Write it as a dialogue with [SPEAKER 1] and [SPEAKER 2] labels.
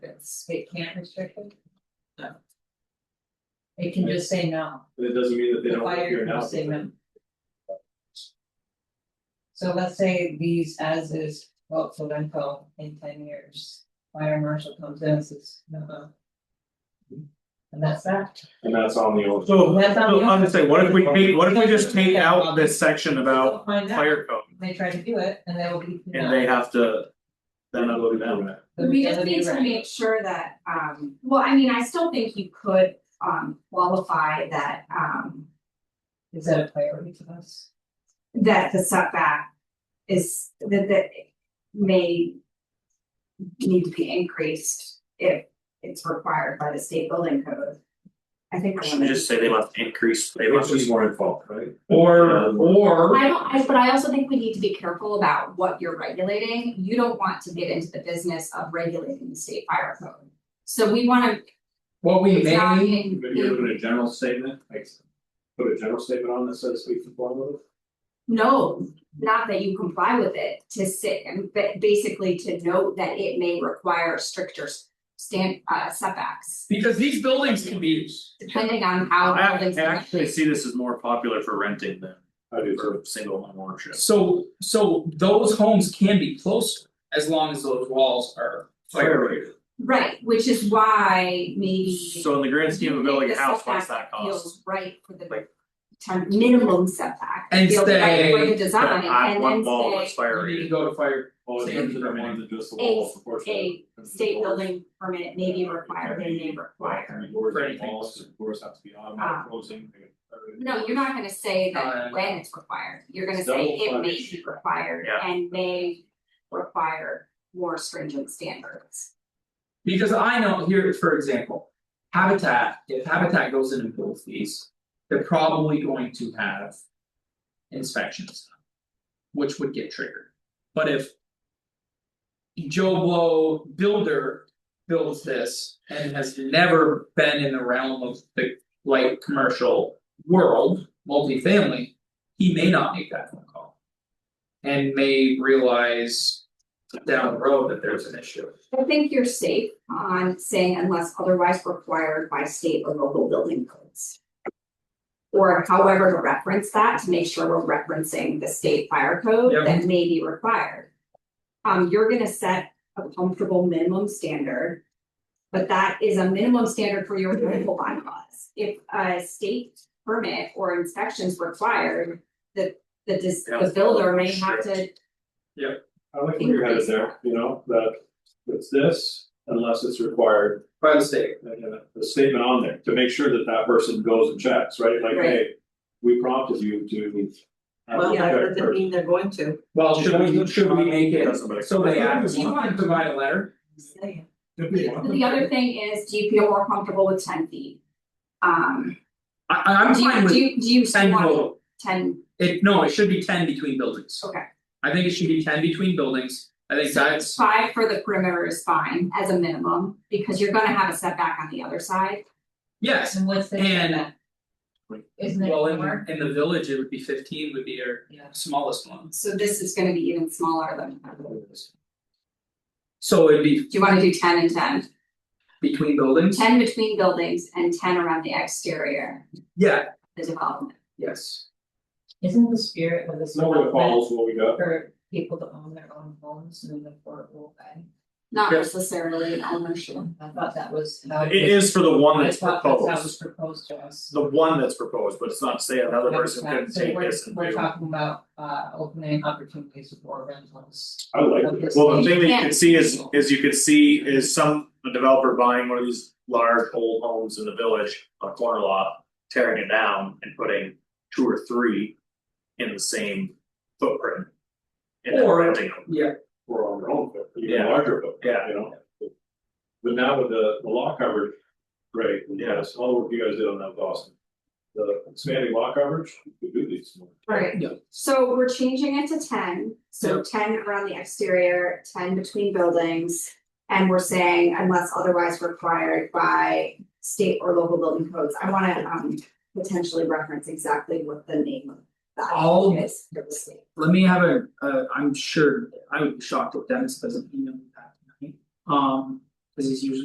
[SPEAKER 1] it's, it can't restrict it? No. It can just say no,
[SPEAKER 2] But it doesn't mean that they
[SPEAKER 1] the
[SPEAKER 2] don't want to hear
[SPEAKER 1] fire
[SPEAKER 2] it
[SPEAKER 1] can
[SPEAKER 2] out.
[SPEAKER 1] just say no. So let's say these as is, vote for Lenco in ten years, fire marshal comes in and says, no. no." And that's that,
[SPEAKER 2] And that's on the old.
[SPEAKER 3] So,
[SPEAKER 1] That's on
[SPEAKER 3] so
[SPEAKER 1] the-
[SPEAKER 3] I'm just saying, what if we take, what if we just take out this section about
[SPEAKER 1] We'll find out.
[SPEAKER 3] fire code
[SPEAKER 1] they try to do it and they will be.
[SPEAKER 3] and they have to. Then I look down.
[SPEAKER 1] The
[SPEAKER 4] We just
[SPEAKER 1] reality
[SPEAKER 4] need to
[SPEAKER 1] around it.
[SPEAKER 4] make sure that, um, well, I mean, I still think you could, um, qualify that, um,
[SPEAKER 1] Is that a priority to us?
[SPEAKER 4] that the setback is, that, that may need to be increased if it's required by the state building code. I think. I
[SPEAKER 5] Should
[SPEAKER 4] wanna-
[SPEAKER 5] we just say they must increase, they
[SPEAKER 2] Which
[SPEAKER 5] must
[SPEAKER 2] is more involved, right?
[SPEAKER 3] Or or.
[SPEAKER 4] I don't, I, but I also think we need to be careful about what you're regulating, you don't want to get into the business of regulating the state fire code. So we wanna,
[SPEAKER 6] What we
[SPEAKER 4] it's not
[SPEAKER 6] may,
[SPEAKER 4] in-
[SPEAKER 2] Maybe you put a general statement, like. Put a general statement on that says we conform with it.
[SPEAKER 4] No, not that you comply with it, to sit and ba- basically to note that it may require stricter s- stand uh setbacks.
[SPEAKER 6] because these buildings can be,
[SPEAKER 4] Depending on how
[SPEAKER 5] I
[SPEAKER 4] buildings.
[SPEAKER 5] I actually see this as more popular for renting than
[SPEAKER 2] I do too.
[SPEAKER 5] for single home ownership.
[SPEAKER 6] so, so those homes can be closer, as long as those walls are fire rated.
[SPEAKER 4] Right, which is why maybe.
[SPEAKER 5] So in the grand scheme of building a house, what's that
[SPEAKER 4] You
[SPEAKER 5] cost?
[SPEAKER 4] think the setback feels right for the
[SPEAKER 5] Like-
[SPEAKER 4] term minimum setback,
[SPEAKER 6] And
[SPEAKER 4] feels right for
[SPEAKER 6] say-
[SPEAKER 4] the design,
[SPEAKER 5] That I-
[SPEAKER 4] and
[SPEAKER 5] one
[SPEAKER 4] then
[SPEAKER 5] wall was
[SPEAKER 4] say
[SPEAKER 5] fire
[SPEAKER 6] You need to
[SPEAKER 5] rated.
[SPEAKER 6] go to fire,
[SPEAKER 2] Well, it's
[SPEAKER 6] Same.
[SPEAKER 2] good for the ones that do us the
[SPEAKER 4] A-
[SPEAKER 2] wall, proportionally.
[SPEAKER 4] state building permit may be required, they may require.
[SPEAKER 2] I mean, doors
[SPEAKER 6] For
[SPEAKER 2] and
[SPEAKER 6] anything.
[SPEAKER 2] walls, and doors have to be
[SPEAKER 4] Ah.
[SPEAKER 2] automatic closing. they-
[SPEAKER 4] No, you're not gonna say that
[SPEAKER 6] Uh,
[SPEAKER 4] when it's required, you're gonna
[SPEAKER 2] Oh, it's
[SPEAKER 4] say
[SPEAKER 2] double
[SPEAKER 4] it may
[SPEAKER 2] punished.
[SPEAKER 4] be required
[SPEAKER 5] Yeah.
[SPEAKER 4] and may require more stringent standards.
[SPEAKER 6] because I know here, for example. Habitat, if Habitat goes in and builds these, they're probably going to have. Inspections. Which would get triggered, but if. Joe Blow builder builds this and has never been in the realm of the light commercial world, multifamily. He may not make that phone call. And may realize down the road that there's an issue.
[SPEAKER 4] I think you're safe on saying unless otherwise required by state or local building codes. Or however to reference that, to make sure we're referencing the state fire code
[SPEAKER 6] Yep.
[SPEAKER 4] that may be required. Um, you're gonna set a comfortable minimum standard. But that is a minimum standard for your local bylaws. If a state permit or inspections required, the the dis-
[SPEAKER 5] Yeah,
[SPEAKER 4] the builder may have to
[SPEAKER 2] I like where your head is there, you know, that it's this unless it's required.
[SPEAKER 6] By the state.
[SPEAKER 2] and a- a statement on there to make sure that that person goes and checks, right? Like,
[SPEAKER 4] Right.
[SPEAKER 2] hey, we prompted you to. have
[SPEAKER 1] Well,
[SPEAKER 2] it
[SPEAKER 1] that
[SPEAKER 2] checked
[SPEAKER 1] doesn't
[SPEAKER 2] first."
[SPEAKER 1] mean they're going to.
[SPEAKER 6] Well, should we, should we make it,
[SPEAKER 5] Doesn't matter.
[SPEAKER 6] so they add, do you wanna provide a letter?
[SPEAKER 1] Saying.
[SPEAKER 2] If we want them
[SPEAKER 4] The other
[SPEAKER 2] to.
[SPEAKER 4] thing is, do you feel more comfortable with ten feet? Um,
[SPEAKER 6] I I I'm
[SPEAKER 4] do you,
[SPEAKER 6] fine
[SPEAKER 4] do
[SPEAKER 6] with
[SPEAKER 4] you, do you
[SPEAKER 6] ten
[SPEAKER 4] want
[SPEAKER 6] total,
[SPEAKER 4] ten,
[SPEAKER 6] it, no, it should be ten between buildings.
[SPEAKER 4] Okay.
[SPEAKER 6] I think it should be ten between buildings, I think that's,
[SPEAKER 4] five for the perimeter is fine as a minimum, because you're gonna have a setback on the other side.
[SPEAKER 6] yes,
[SPEAKER 1] And what's the
[SPEAKER 6] And-
[SPEAKER 1] setback? Isn't it
[SPEAKER 6] well, in
[SPEAKER 1] more?
[SPEAKER 6] in the village, it would be fifteen would be your
[SPEAKER 1] Yeah.
[SPEAKER 6] smallest one.
[SPEAKER 4] So this is gonna be even smaller than, do
[SPEAKER 6] So it'd be
[SPEAKER 4] you wanna do ten and 10?
[SPEAKER 6] between
[SPEAKER 4] 10
[SPEAKER 6] buildings?
[SPEAKER 4] between buildings and ten around the exterior,
[SPEAKER 6] Yeah,
[SPEAKER 4] the development.
[SPEAKER 6] yes,
[SPEAKER 1] Isn't the spirit of this
[SPEAKER 2] It's nowhere
[SPEAKER 1] development
[SPEAKER 2] follows what we got.
[SPEAKER 1] for people to own their own homes and the affordable way?
[SPEAKER 4] Not
[SPEAKER 6] Yeah.
[SPEAKER 4] necessarily an ownership.
[SPEAKER 1] I thought that was how it
[SPEAKER 5] It
[SPEAKER 1] was,
[SPEAKER 5] is for the one
[SPEAKER 1] I
[SPEAKER 5] that's
[SPEAKER 1] thought that's how it was
[SPEAKER 5] proposed,
[SPEAKER 1] proposed to us.
[SPEAKER 5] the one that's proposed, but it's not to say another
[SPEAKER 1] That was
[SPEAKER 5] person
[SPEAKER 1] that.
[SPEAKER 5] couldn't
[SPEAKER 1] So
[SPEAKER 5] take
[SPEAKER 1] we're-
[SPEAKER 5] this and do.
[SPEAKER 1] We're talking about uh opening opportunities for rentals.
[SPEAKER 2] I like
[SPEAKER 1] Okay.
[SPEAKER 2] it.
[SPEAKER 5] Well, the thing that you
[SPEAKER 4] Yeah.
[SPEAKER 5] could see is, is you could see is some, a developer buying one of these large old homes in the village, a corner lot. Tearing it down and putting two or three in the same footprint. And then
[SPEAKER 6] Or-
[SPEAKER 5] renting them,
[SPEAKER 6] yeah,
[SPEAKER 2] We're on our own, but even
[SPEAKER 5] Yeah.
[SPEAKER 2] larger, but,
[SPEAKER 5] Yeah.
[SPEAKER 2] you know. But now with the, the law coverage, great, and
[SPEAKER 5] Yeah.
[SPEAKER 2] yes, all the work you guys did on that, Boston. The expanding law coverage, we do these more.
[SPEAKER 4] Right.
[SPEAKER 6] Yeah.
[SPEAKER 4] So we're changing it to ten, so ten around the exterior, ten between buildings. And we're saying unless otherwise required by state or local building codes, I wanna um potentially reference exactly what the name of that
[SPEAKER 6] All-
[SPEAKER 4] is. for the state.
[SPEAKER 6] let me have a, uh, I'm sure, I would be shocked if Dennis doesn't email me that tonight. Um, cause he's usually